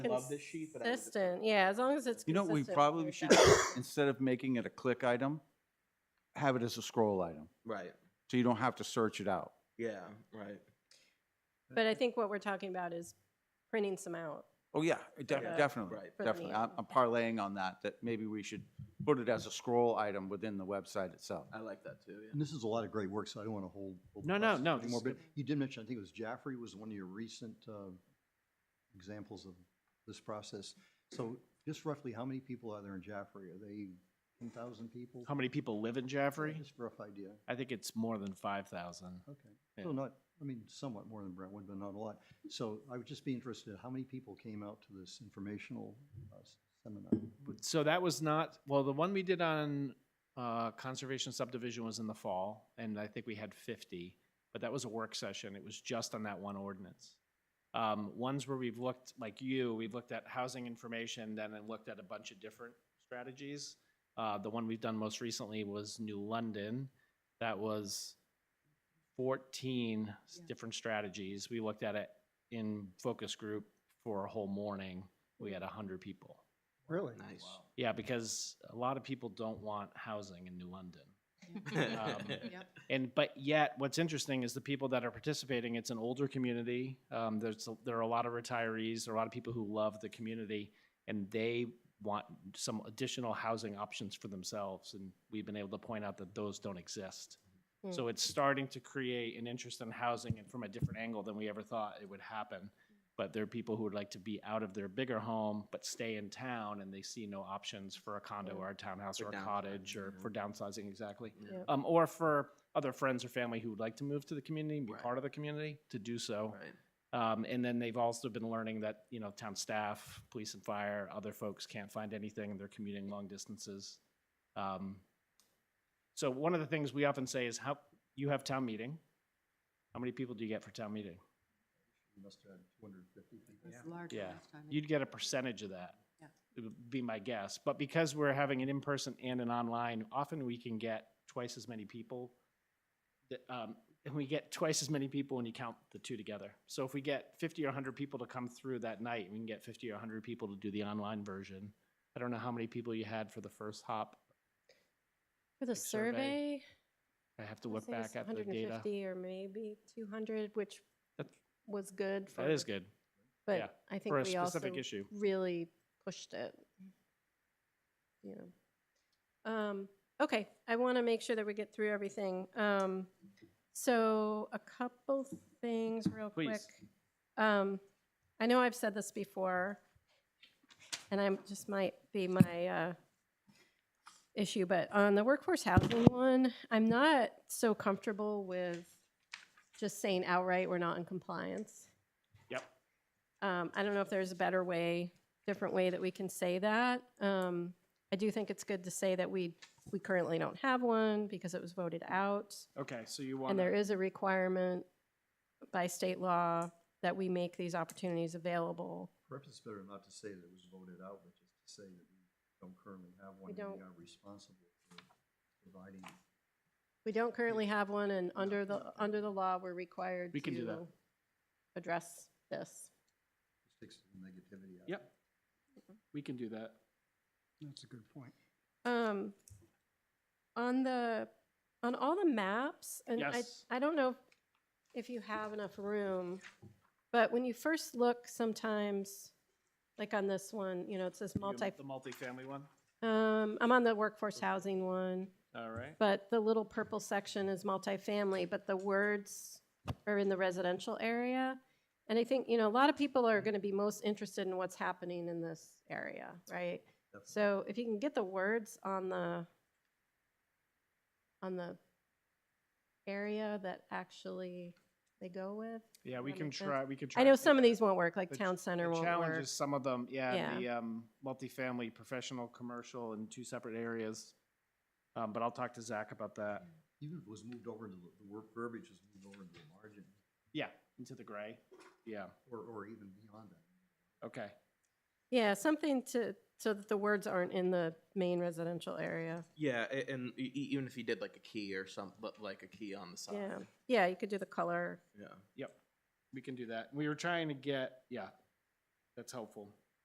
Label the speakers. Speaker 1: I love this sheet, but I would just-
Speaker 2: Consistent, yeah, as long as it's
Speaker 3: You know,
Speaker 2: consistent.
Speaker 3: what we probably
Speaker 2: we're
Speaker 3: should,
Speaker 2: good.
Speaker 3: do, instead of making it a click item, have it as a scroll item,
Speaker 1: Right,
Speaker 3: so you don't have to search it out.
Speaker 1: yeah, right.
Speaker 2: But I think what we're talking about is printing some out.
Speaker 3: Oh, yeah, def-
Speaker 2: Yeah.
Speaker 3: definitely,
Speaker 1: Right.
Speaker 2: For
Speaker 3: definitely.
Speaker 2: the-
Speaker 3: I'm I'm parlaying on that, that maybe we should put it as a scroll item within the website itself.
Speaker 1: I like that too,
Speaker 4: And
Speaker 1: yeah.
Speaker 4: this is a lot of great work, so I don't want to hold. hold
Speaker 5: No,
Speaker 4: the
Speaker 5: no,
Speaker 4: process
Speaker 5: no,
Speaker 4: Anymore,
Speaker 5: this
Speaker 4: but
Speaker 5: is
Speaker 4: you did mention, I think it was Jaffrey was one of your recent uh, examples of this process. So just roughly, how many people are there in Jaffrey? Are they ten thousand people?
Speaker 5: How many people live in Jaffrey?
Speaker 4: Just a rough idea.
Speaker 5: I think it's more than five thousand.
Speaker 4: Okay.
Speaker 5: Yeah.
Speaker 4: So not, I mean, somewhat more than Brentwood, but not a lot. So I would just be interested, how many people came out to this informational uh, s- seminar?
Speaker 5: So that was not, well, the one we did on uh, conservation subdivision was in the fall, and I think we had fifty, but that was a work session. It was just on that one ordinance. Um, Ones where we've looked, like you, we've looked at housing information, then I looked at a bunch of different strategies. Uh, The one we've done most recently was New London. That was fourteen s-
Speaker 2: Yeah.
Speaker 5: different strategies. We looked at it in focus group for a whole morning. We had hundred people.
Speaker 4: Really?
Speaker 1: Nice.
Speaker 5: Yeah, because a lot of people don't want housing in New London. Um, And, but yet, what's interesting is the people that are participating, it's an older community. Um, there's, a- there are a lot of retirees, there are a lot of people who love the community, and they want some additional housing options for themselves, and we've been able to point out that those don't exist.
Speaker 1: Hmm.
Speaker 5: So it's starting to create an interest in housing and from a different angle than we ever thought it would happen. But there are people who would like to be out of their bigger home, but stay in town, and they see no options for a condo or a townhouse
Speaker 1: For
Speaker 5: or a
Speaker 1: downsizing,
Speaker 5: cottage or
Speaker 1: yeah.
Speaker 5: for downsizing, exactly
Speaker 1: Yeah,
Speaker 5: um, or for other friends or family who would like to move to the community and be
Speaker 1: Right.
Speaker 5: part of the community to do so.
Speaker 1: Right,
Speaker 5: Um, and then they've also been learning that you know town staff, police and fire, other folks can't find anything and they're commuting long distances. Um, so one of the things we often say is how you have town meeting. How many people do you get for town meeting?
Speaker 4: Must have two hundred and fifty people.
Speaker 6: It's large
Speaker 5: Yeah.
Speaker 6: last time.
Speaker 5: You'd get a percentage of that.
Speaker 6: Yeah.
Speaker 5: It would be my guess. But because we're having an in-person and an online, often we can get twice as many people. that, um, And we get twice as many people when you count the two together. So if we get fifty or hundred people to come through that night, we can get fifty or hundred people to do the online version. I don't know how many people you had for the first hop.
Speaker 2: For the
Speaker 5: Like survey,
Speaker 2: survey,
Speaker 5: I have to
Speaker 2: I
Speaker 5: look
Speaker 2: think it's
Speaker 5: back at the
Speaker 2: hundred and
Speaker 5: data.
Speaker 2: fifty or maybe two hundred, which
Speaker 5: That-
Speaker 2: was good for.
Speaker 5: That is good yeah,
Speaker 2: But I think
Speaker 5: for a
Speaker 2: we also
Speaker 5: specific issue.
Speaker 2: really pushed it. You know. Um, okay, I want to make sure that we get through everything. Um, so a couple things real quick.
Speaker 5: Please.
Speaker 2: Um, I know I've said this before, and I'm, just might be my, uh, issue, but on the workforce housing one, I'm not so comfortable with just saying outright, we're not in compliance.
Speaker 5: Yep.
Speaker 2: Um, I don't know if there's a better way, different way that we can say that. Um, I do think it's good to say that we, we currently don't have one because it was voted out.
Speaker 5: Okay, so you
Speaker 2: And
Speaker 5: want,
Speaker 2: there is a requirement by state law that we make these opportunities available.
Speaker 4: Perhaps it's better not to say that it was voted out, but just to say that we don't currently have one.
Speaker 2: We
Speaker 4: and We
Speaker 2: don't.
Speaker 4: are responsible for providing.
Speaker 2: We don't currently have one, and under the, under the law, we're required
Speaker 5: We can do that.
Speaker 2: to address this.
Speaker 4: Six negativity out.
Speaker 5: Yep. we can do that.
Speaker 4: That's a good point.
Speaker 2: Um, on the, on all the maps, and I,
Speaker 5: Yes.
Speaker 2: I don't know if- if you have enough room, but when you first look sometimes, like on this one, you know, it says
Speaker 5: You-
Speaker 2: multi,
Speaker 5: The multifamily one,
Speaker 2: um, I'm on the workforce housing one,
Speaker 5: all right.
Speaker 2: but the little purple section is multifamily, but the words are in the residential area. And I think, you know, a lot of people are gonna be most interested in what's happening in this area, right? So if you can get the words on the, on the area that actually they go with.
Speaker 5: Yeah, we
Speaker 2: that
Speaker 5: can
Speaker 2: make sense?
Speaker 5: try, we can try.
Speaker 2: I
Speaker 5: to
Speaker 2: know
Speaker 5: do
Speaker 2: some of
Speaker 5: that.
Speaker 2: these won't work, like
Speaker 5: The ch-
Speaker 2: town center
Speaker 5: The
Speaker 2: won't
Speaker 5: challenge
Speaker 2: work.
Speaker 5: is some of them, yeah,
Speaker 2: Yeah.
Speaker 5: the um, multifamily, professional, commercial in two separate areas. Um, But I'll talk to Zach about that.
Speaker 2: Mm.
Speaker 4: Even if it was moved over into the, the word verbiage was moved over into the margin
Speaker 5: Yeah, into the gray. Yeah,
Speaker 4: or, or even beyond that.
Speaker 5: okay.
Speaker 2: Yeah, something to, so that the words aren't in the main residential area.
Speaker 1: yeah, a- and e- e- even if you did like a key or some, but like a key on the
Speaker 2: Yeah,
Speaker 1: side,
Speaker 2: yeah, you could do the color.
Speaker 1: yeah.
Speaker 5: We can do that. We were trying to get, yeah, that's helpful.